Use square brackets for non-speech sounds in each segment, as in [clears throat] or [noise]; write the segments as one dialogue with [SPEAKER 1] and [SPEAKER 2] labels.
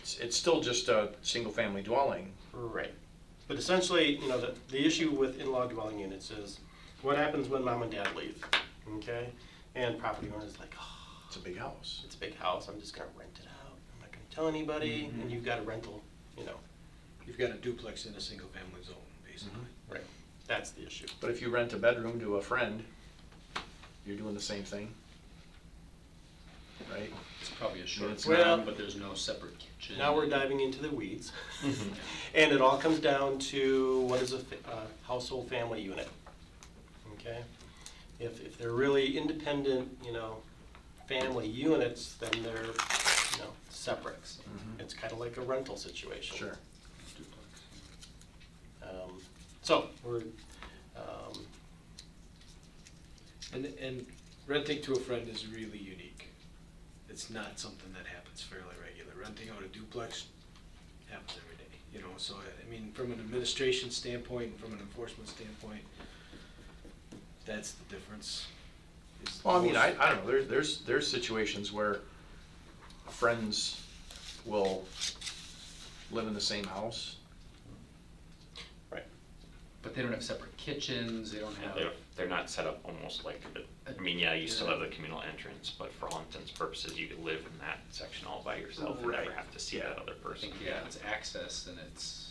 [SPEAKER 1] it's, it's still just a single-family dwelling.
[SPEAKER 2] Right. But essentially, you know, the, the issue with in-law dwelling units is what happens when mom and dad leave, okay? And property owner's like, oh,
[SPEAKER 1] It's a big house.
[SPEAKER 2] it's a big house, I'm just gonna rent it out, I'm not gonna tell anybody, and you've got a rental, you know,
[SPEAKER 3] You've got a duplex in a single family zone, basically.
[SPEAKER 1] Mm-hmm.
[SPEAKER 2] right, that's the issue.
[SPEAKER 1] But if you rent a bedroom to a friend, you're doing the same thing. Right?
[SPEAKER 4] It's probably a short
[SPEAKER 1] It's
[SPEAKER 2] Well-
[SPEAKER 4] term, but there's no separate kitchen.
[SPEAKER 2] Now we're diving into the weeds. [laughs] And it all comes down to what is a fa- a household family unit, okay? If, if they're really independent, you know, family units, then they're, you know, separate. It's kind of like a rental situation.
[SPEAKER 1] Sure.
[SPEAKER 4] Duplex.
[SPEAKER 2] Um, So, we're, um,
[SPEAKER 3] And, and renting to a friend is really unique. It's not something that happens fairly regular. Renting out a duplex happens every day, you know, so, I- I mean, from an administration standpoint, and from an enforcement standpoint, that's the difference. is
[SPEAKER 1] Well, I mean, I,
[SPEAKER 3] most-
[SPEAKER 1] I don't know, there's, there's, there's situations where friends will live in the same house.
[SPEAKER 4] But they don't have separate kitchens, they don't have,
[SPEAKER 5] They're, they're not set up almost like, a- I mean, yeah, you still have the communal entrance, but for all intents and purposes, you could live in that section all by yourself and never
[SPEAKER 1] Right.
[SPEAKER 5] have to see that other
[SPEAKER 4] I
[SPEAKER 5] person.
[SPEAKER 4] think, yeah, it's access and it's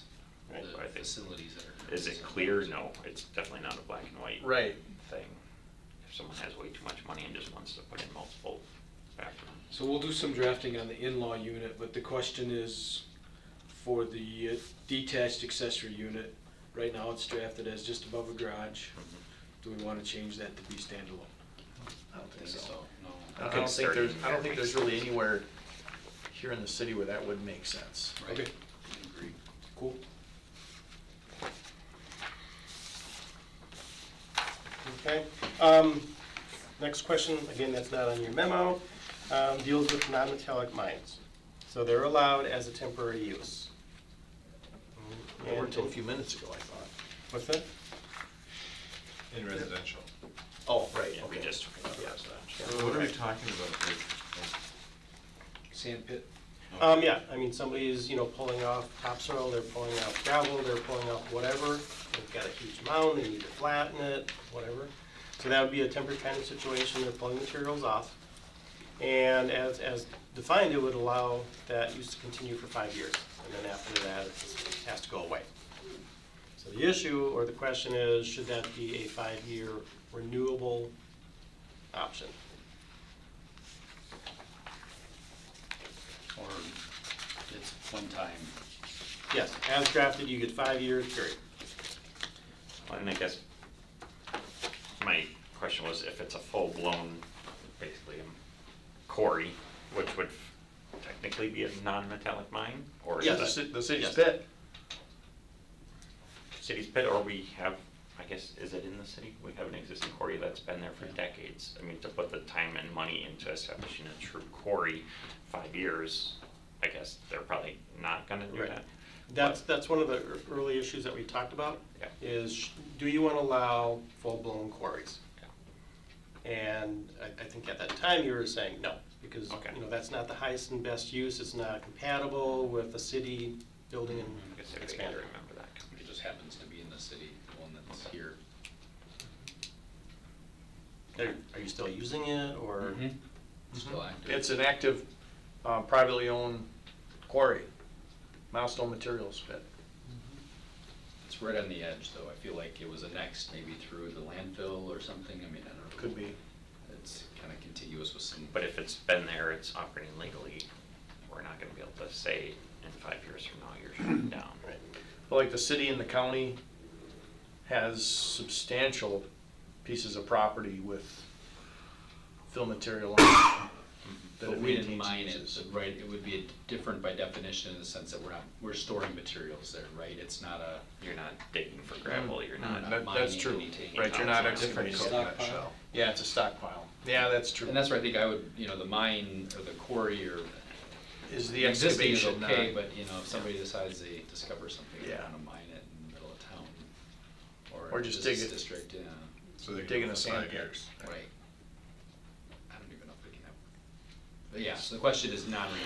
[SPEAKER 5] Right, but I
[SPEAKER 4] the
[SPEAKER 5] think-
[SPEAKER 4] facilities that are.
[SPEAKER 5] Is it clear? No, it's definitely not a black and white
[SPEAKER 1] Right.
[SPEAKER 5] thing. If someone has way too much money and just wants to put in multiple bathrooms.
[SPEAKER 3] So we'll do some drafting on the in-law unit, but the question is for the uh, detached accessory unit. Right now it's drafted as just above a garage. Do we wanna change that to be standalone?
[SPEAKER 1] I don't
[SPEAKER 4] I think so, no.
[SPEAKER 1] I don't think there's, I don't think there's
[SPEAKER 5] Starting
[SPEAKER 1] really anywhere here in the city where that would make sense.
[SPEAKER 4] Right.
[SPEAKER 3] Okay.
[SPEAKER 4] Agree.
[SPEAKER 3] Cool.
[SPEAKER 2] okay. Um, Next question, again, that's not on your memo, um, deals with non-metallic mines. So they're allowed as a temporary use.
[SPEAKER 1] They were
[SPEAKER 2] And-
[SPEAKER 1] until a few minutes ago, I thought.
[SPEAKER 2] What's that?
[SPEAKER 6] In residential.
[SPEAKER 2] Oh, right,
[SPEAKER 5] Yeah, we
[SPEAKER 2] okay.
[SPEAKER 5] just took it up as that.
[SPEAKER 6] What are we talking about? here?
[SPEAKER 3] Sand pit.
[SPEAKER 2] Um, yeah, I mean, somebody is, you know, pulling off topsoil, they're pulling out gravel, they're pulling out whatever. They've got a huge mound, they need to flatten it, whatever. So that would be a temporary kind of situation, they're pulling materials off. And as, as defined, it would allow that use to continue for five years, and then after that, it has to go away. So the issue, or the question is, should that be a five-year renewable option?
[SPEAKER 4] Or it's one time,
[SPEAKER 2] Yes, as drafted, you get five years, period.
[SPEAKER 5] Well, And I guess my question was if it's a full-blown, basically a quarry, which would technically be a non-metallic mine? Or is
[SPEAKER 2] Yes.
[SPEAKER 1] The
[SPEAKER 5] that
[SPEAKER 1] ci- the city's
[SPEAKER 2] Yes.
[SPEAKER 1] pit,
[SPEAKER 5] city's pit, or we have, I guess, is it in the city? We have an existing quarry that's been there for decades. I mean, to put the time and money into establishing a true quarry, five years, I guess they're probably not gonna do
[SPEAKER 2] Right.
[SPEAKER 5] that.
[SPEAKER 2] That's, that's one of the ear- early issues that we talked about,
[SPEAKER 5] Yeah.
[SPEAKER 2] is sh- do you want to allow full-blown quarries?
[SPEAKER 5] Yeah.
[SPEAKER 2] And I, I think at that time you were saying no, because,
[SPEAKER 5] Okay.
[SPEAKER 2] you know, that's not the highest and best use, it's not compatible with the city building
[SPEAKER 5] I guess
[SPEAKER 2] and
[SPEAKER 5] I gotta
[SPEAKER 2] expanding.
[SPEAKER 5] remember that.
[SPEAKER 4] it just happens to be in the city, the one that's here.
[SPEAKER 5] Mm-hmm.
[SPEAKER 2] Are are you still using it, or?
[SPEAKER 1] Mm-hmm.
[SPEAKER 4] Still active.
[SPEAKER 1] it's an active, uh, privately owned quarry, Milestone Materials pit.
[SPEAKER 4] It's right on the edge, though. I feel like it was annexed maybe through the landfill or something. I mean, I don't know.
[SPEAKER 1] Could be.
[SPEAKER 4] It's kind of contiguous with some.
[SPEAKER 5] But if it's been there, it's operating legally, we're not gonna be able to say in five years from now, you're
[SPEAKER 2] [clears throat]
[SPEAKER 5] shutting down.
[SPEAKER 2] Right.
[SPEAKER 1] But like the city and the county has substantial pieces of property with fill material on it that
[SPEAKER 4] But
[SPEAKER 1] it
[SPEAKER 4] we
[SPEAKER 1] maintains
[SPEAKER 4] didn't
[SPEAKER 1] and
[SPEAKER 4] mine it,
[SPEAKER 1] uses.
[SPEAKER 4] but right? It would be different by definition in the sense that we're not, we're storing materials there, right? It's not a.
[SPEAKER 5] You're not digging for gravel, you're
[SPEAKER 6] Mm,
[SPEAKER 5] not.
[SPEAKER 4] not
[SPEAKER 1] That- That's
[SPEAKER 4] mining
[SPEAKER 1] true,
[SPEAKER 4] anything.
[SPEAKER 1] right, you're not
[SPEAKER 5] It's
[SPEAKER 1] a different,
[SPEAKER 5] gonna
[SPEAKER 1] co-
[SPEAKER 3] Stockpile.
[SPEAKER 1] yeah, it's a stockpile, yeah, that's true.
[SPEAKER 4] And that's where I think I would, you know, the mine or the quarry or.
[SPEAKER 1] Is the
[SPEAKER 4] existing is
[SPEAKER 1] excavation not?
[SPEAKER 4] Okay, but you know, if somebody decides they discover something, they
[SPEAKER 1] Yeah.
[SPEAKER 4] want to mine it in the middle of town.
[SPEAKER 1] Or
[SPEAKER 4] in a
[SPEAKER 1] just dig
[SPEAKER 4] business
[SPEAKER 1] it.
[SPEAKER 4] District, yeah.
[SPEAKER 6] So they're
[SPEAKER 1] Digging
[SPEAKER 6] doing
[SPEAKER 1] a
[SPEAKER 6] it for
[SPEAKER 1] sand
[SPEAKER 6] five
[SPEAKER 1] pit.
[SPEAKER 6] years.
[SPEAKER 4] Right. I don't even know if they can have. But yeah, so the question is non